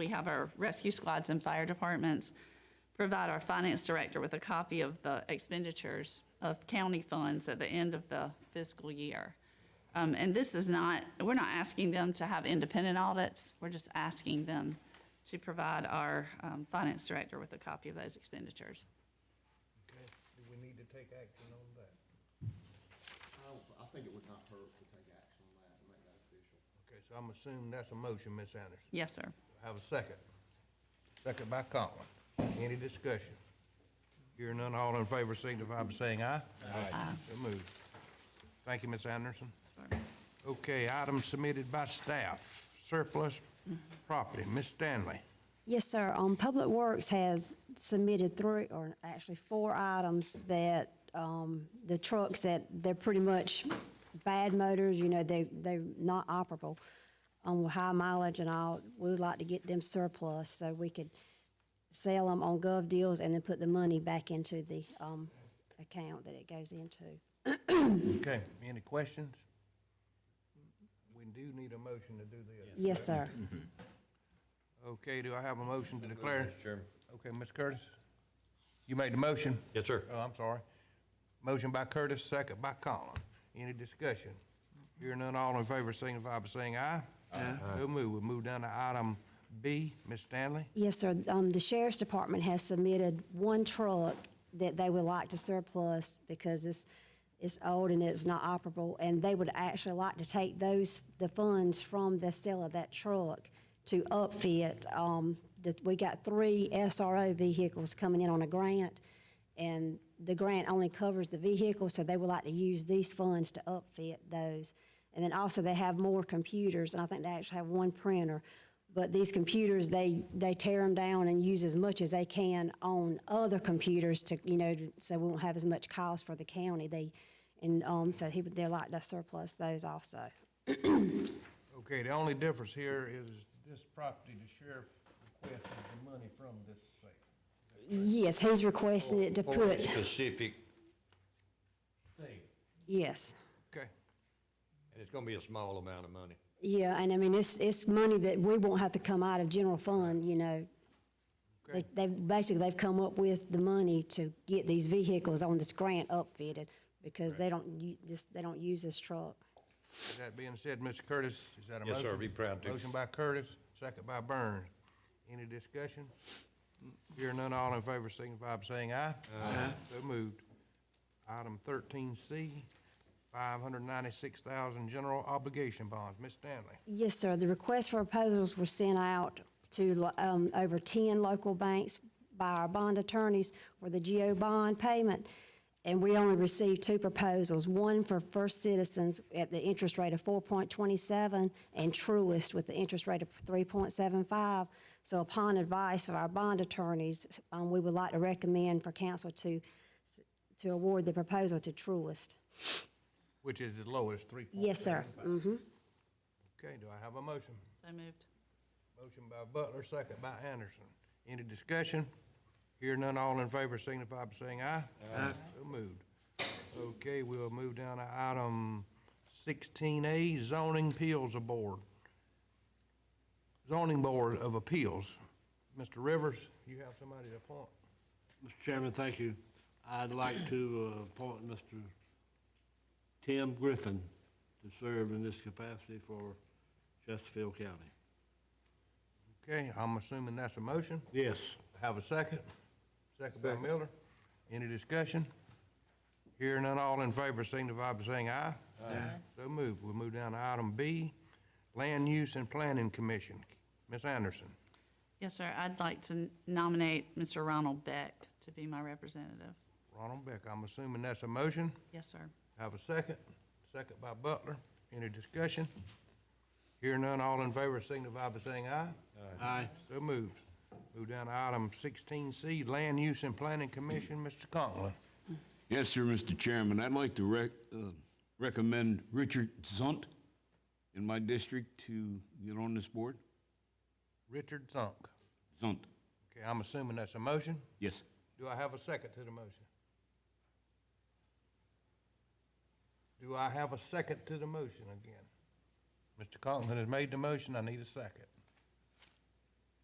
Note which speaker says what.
Speaker 1: we have our rescue squads and fire departments, provide our finance director with a copy of the expenditures of county funds at the end of the fiscal year. Um, And this is not, we're not asking them to have independent audits, we're just asking them to provide our um, finance director with a copy of those expenditures.
Speaker 2: Okay, do we need to take action on that?
Speaker 3: I, I think it would not hurt to take action on that and make that official.
Speaker 2: Okay, so I'm assuming that's a motion, Ms. Anderson.
Speaker 1: Yes, sir.
Speaker 2: Have a second. Second by Conklin. Any discussion? Hearing none, all in favor signify by saying aye. Aye. So moved. Thank you, Ms. Anderson. Okay, items submitted by staff, surplus property, Ms. Stanley.
Speaker 4: Yes, sir. Um, Public Works has submitted three, or actually four items that, um, the trucks that they're pretty much bad motors, you know, they, they're not operable, um, with high mileage and all. We would like to get them surplus so we could sell them on gov deals and then put the money back into the, um, account that it goes into.
Speaker 2: Okay, any questions? We do need a motion to do this.
Speaker 4: Yes, sir.
Speaker 2: Okay, do I have a motion to declare?
Speaker 5: Mr. Chairman.
Speaker 2: Okay, Ms. Curtis? You made the motion?
Speaker 5: Yes, sir.
Speaker 2: Oh, I'm sorry. Motion by Curtis, second by Collin. Any discussion? Hearing none, all in favor, signify by saying aye. Aye. So move. We'll move down to item B. Ms. Stanley?
Speaker 4: Yes, sir. Um, the sheriff's department has submitted one truck that they would like to surplus because it's, it's old and it's not operable. And they would actually like to take those, the funds from the sale of that truck to upfit. Um, that, we got three SRO vehicles coming in on a grant. And the grant only covers the vehicles, so they would like to use these funds to upfit those. And then also they have more computers, and I think they actually have one printer. But these computers, they, they tear them down and use as much as they can on other computers to, you know, so we won't have as much cost for the county. They, and, um, so he, would- they're like to surplus those also.
Speaker 2: Okay, the only difference here is this property, the sheriff requested the money from this sale.
Speaker 4: Yes, he's requesting it to
Speaker 5: For a
Speaker 4: put,
Speaker 5: specific thing,
Speaker 4: yes.
Speaker 2: Okay,
Speaker 5: and it's gonna be a small amount of money.
Speaker 4: Yeah, and I mean, it's, it's money that we won't have to come out of general fund, you know. They,
Speaker 2: Okay.
Speaker 4: they've, basically, they've come up with the money to get these vehicles on this grant upfitted because they don't, u- this, they don't use this truck.
Speaker 2: with that being said, Mr. Curtis, is that a
Speaker 5: Yes,
Speaker 2: motion?
Speaker 5: sir, be proud to.
Speaker 2: Motion by Curtis, second by Burns. Any discussion? Hearing none, all in favor, signify by saying aye. Aye. So moved. Item thirteen C, five hundred ninety-six thousand general obligation bonds. Ms. Stanley,
Speaker 4: Yes, sir. The request for proposals were sent out to lo- um, over 10 local banks by our bond attorneys for the GO bond payment, and we only received two proposals, one for First Citizens at the interest rate of 4.27 and Truist with the interest rate of 3.75. So upon advice of our bond attorneys, um, we would like to recommend for council to, to award the proposal to Truist.
Speaker 2: which is the lowest, three point.
Speaker 4: Yes, sir. Mhm.
Speaker 2: Okay, do I have a motion?
Speaker 1: So moved.
Speaker 2: Motion by Butler, second by Anderson. Any discussion? Hear none, all in favor signify by saying aye. Aye. So moved. Okay, we'll move down to item sixteen A, zoning appeals board. Zoning Board of Appeals. Mr. Rivers, you have somebody to appoint?
Speaker 6: Mr. Chairman, thank you. I'd like to uh, appoint Mr. Tim Griffin to serve in this capacity for Chesterfield County.
Speaker 2: Okay, I'm assuming that's a motion.
Speaker 6: Yes,
Speaker 2: Have a second? Second by
Speaker 3: Second.
Speaker 2: Miller. Any discussion? Hearing none, all in favor signify by saying aye. Aye. So moved. We'll move down to item B, Land Use and Planning Commission. Ms. Anderson,
Speaker 1: Yes, sir, I'd like to nominate Mr. Ronald Beck to be my representative.
Speaker 2: Ronald Beck, I'm assuming that's a motion.
Speaker 1: Yes, sir.
Speaker 2: Have a second? Second by Butler. Any discussion? Hearing none, all in favor signify by saying aye.
Speaker 6: aye.
Speaker 2: So moved. Move down to item sixteen C, Land Use and Planning Commission, Mr. Conklin.
Speaker 7: Yes, sir, Mr. Chairman. I'd like to rec- uh, recommend Richard Zunt in my district to get on this board.
Speaker 2: Richard Zunk.
Speaker 7: Zunt,
Speaker 2: Okay, I'm assuming that's a motion?
Speaker 7: yes.
Speaker 2: Do I have a second to the motion? Do I have a second to the motion again? Mr. Conklin has made the motion, I need a second.